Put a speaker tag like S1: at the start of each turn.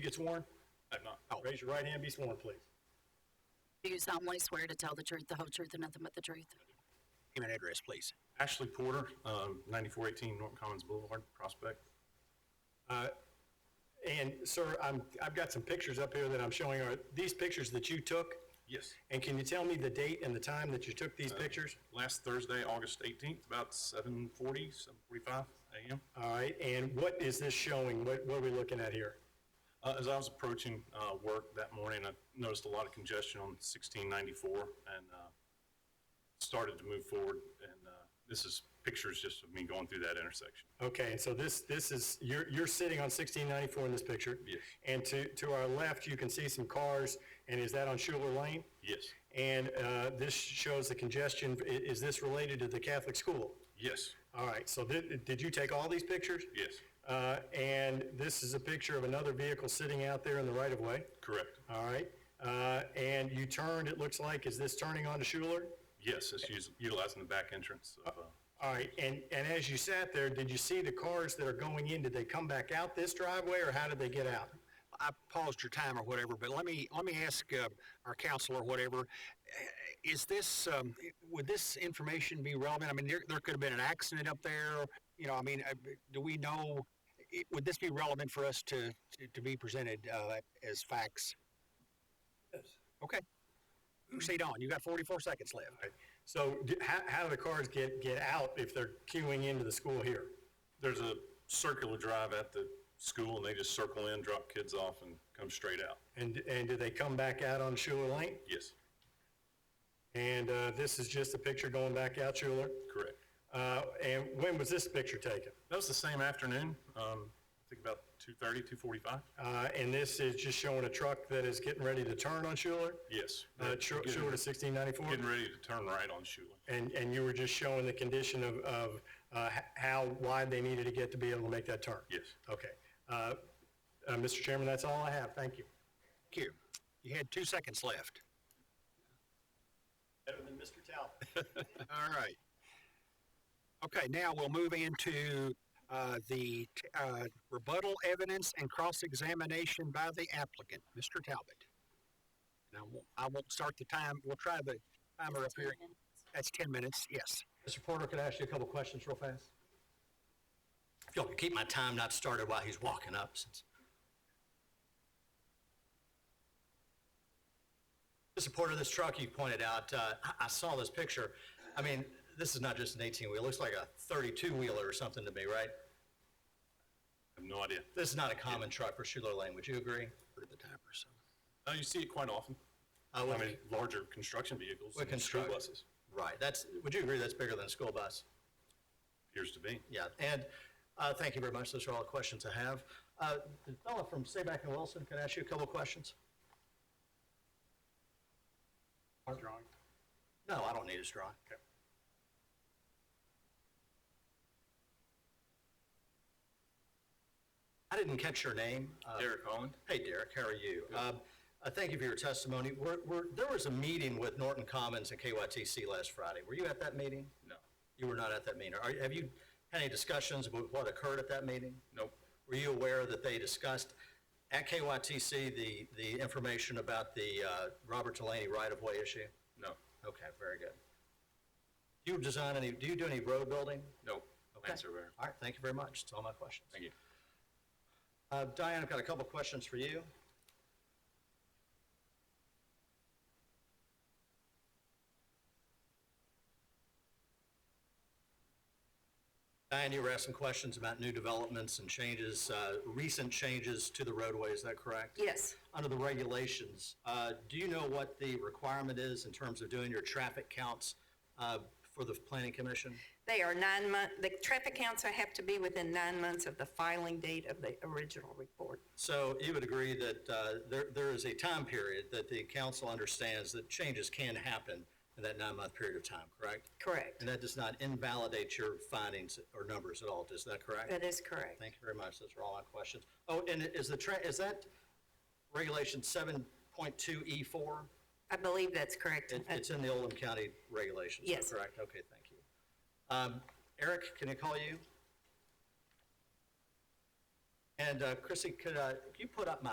S1: get sworn? Oh.
S2: I'm not.
S1: Raise your right hand, be sworn, please.
S3: Do you solemnly swear to tell the truth, the whole truth, and nothing but the truth?
S4: Name and address, please.
S2: Ashley Porter, um, 9418 Norton Commons Boulevard, Prospect.
S1: Uh, And sir, I'm, I've got some pictures up here that I'm showing. Are these pictures that you took?
S2: Yes.
S1: And can you tell me the date and the time that you took these pictures?
S2: Last Thursday, August 18th, about 7:40, 7:45 a.m.
S1: All right, and what is this showing? What, what are we looking at here?
S2: Uh, As I was approaching uh, work that morning, I noticed a lot of congestion on 1694 and uh, started to move forward. And uh, this is pictures just of me going through that intersection.
S1: Okay, and so this, this is, you're, you're sitting on sixteen ninety-four in this picture.
S2: Yes.
S1: And to, to our left, you can see some cars, and is that on Schuler Lane?
S2: Yes,
S1: And, uh, this shows the congestion. I- is this related to the Catholic school?
S2: yes,
S1: All right, so did, did you take all these pictures?
S2: yes,
S1: Uh, and this is a picture of another vehicle sitting out there in the right of way.
S2: correct.
S1: All right, uh, and you turned, it looks like, is this turning onto Schuler?
S2: Yes, it's us- utilizing the back entrance of, uh,
S1: All right, and, and as you sat there, did you see the cars that are going in? Did they come back out this driveway, or how did they get out?
S4: I paused your time or whatever, but let me, let me ask uh, our council or whatever, eh, is this, um, would this information be relevant? I mean, there, there could have been an accident up there, you know, I mean, uh, do we know, it- would this be relevant for us to, to- to be presented uh, as facts? Okay. Proceed on, you got 44 seconds left.
S1: So d- how, how do the cars get, get out if they're queuing into the school here?
S2: there's a circular drive at the school and they just circle in, drop kids off and come straight out.
S1: And, and do they come back out on Schuler Lane?
S2: Yes,
S1: And uh, this is just a picture going back out Schuler.
S2: correct.
S1: Uh, And when was this picture taken?
S2: That was the same afternoon, um, I think about 2:30, 2:45.
S1: Uh, And this is just showing a truck that is getting ready to turn on Schuler,
S2: Yes.
S1: uh, Schu-
S2: Getting-
S1: Schuler to 1694?
S2: Getting ready to turn right on Schuler.
S1: And, and you were just showing the condition of, of uh, h- how wide they needed to get to be able to make that turn?
S2: Yes.
S1: Okay. Uh, uh, Mr. Chairman, that's all I have. Thank you.
S4: Thank you. You had two seconds left.
S1: Better than Mr. Talbot.
S4: All right. Okay, now we'll move into uh, the t- uh, rebuttal evidence and cross-examination by the applicant, Mr. Talbot. Now, I won't start the time, we'll try the timer up here. That's 10 minutes, yes.
S1: Mr. Porter, could I ask you a couple questions real fast?
S5: If y'all can keep my time not started while he's walking up, since. The support of this truck you pointed out, uh, I, I saw this picture. I mean, this is not just an eighteen wheel, it looks like a thirty-two wheeler or something to me, right?
S2: I have no idea.
S5: This is not a common truck for Schuler Lane, would you agree?
S4: Put the timer, so.
S2: Uh, you see it quite often.
S5: I
S2: I
S5: would,
S2: mean, larger construction vehicles
S5: Well,
S2: and school
S5: construct-
S2: buses,
S5: right, that's, would you agree that's bigger than a school bus?
S2: appears to be.
S5: Yeah, and, uh, thank you very much, those are all the questions I have. Uh, the fellow from Sayback and Wilson, can I ask you a couple of questions?
S1: Drawing.
S5: No, I don't need his drawing. I didn't catch your name. Uh,
S2: Derek Holland?
S5: Hey, Derek, how are you? Um, uh, Thank you for your testimony. We're- we're- There was a meeting with Norton Commons and KYTC last Friday. Were you at that meeting?
S2: No.
S5: You were not at that meeting. Are- Have you had any discussions about what occurred at that meeting?
S2: Nope.
S5: Were you aware that they discussed at KYTC the the information about the uh, Robert Delaney right-of-way issue?
S2: No.
S5: Okay, very good. Do you design any, do you do any road building?
S2: Nope.
S5: Okay.
S2: surveyor.
S5: All right, thank you very much. That's all my questions.
S2: Thank you.
S5: Uh, Diane, I've got a couple of questions for you. Diane, you were asking questions about new developments and changes, uh, recent changes to the roadway, is that correct?
S3: Yes.
S5: Under the regulations, uh, do you know what the requirement is in terms of doing your traffic counts uh, for the planning commission?
S6: They are nine month, the traffic counts have to be within nine months of the filing date of the original report.
S5: So you would agree that uh, there, there is a time period that the council understands that changes can happen in that nine-month period of time, correct?
S6: Correct.
S5: And that does not invalidate your findings or numbers at all, is that correct?
S6: That is correct.
S5: Thank you very much, those are all my questions. Oh, and is the, tra- is that regulation seven point two E four?
S6: I believe that's correct.
S5: It- It's in the Oldham County regulations, is
S6: Yes.
S5: that correct? Okay, thank you. Um, Eric, can I call you? And uh, Chrissy, could uh, you put up my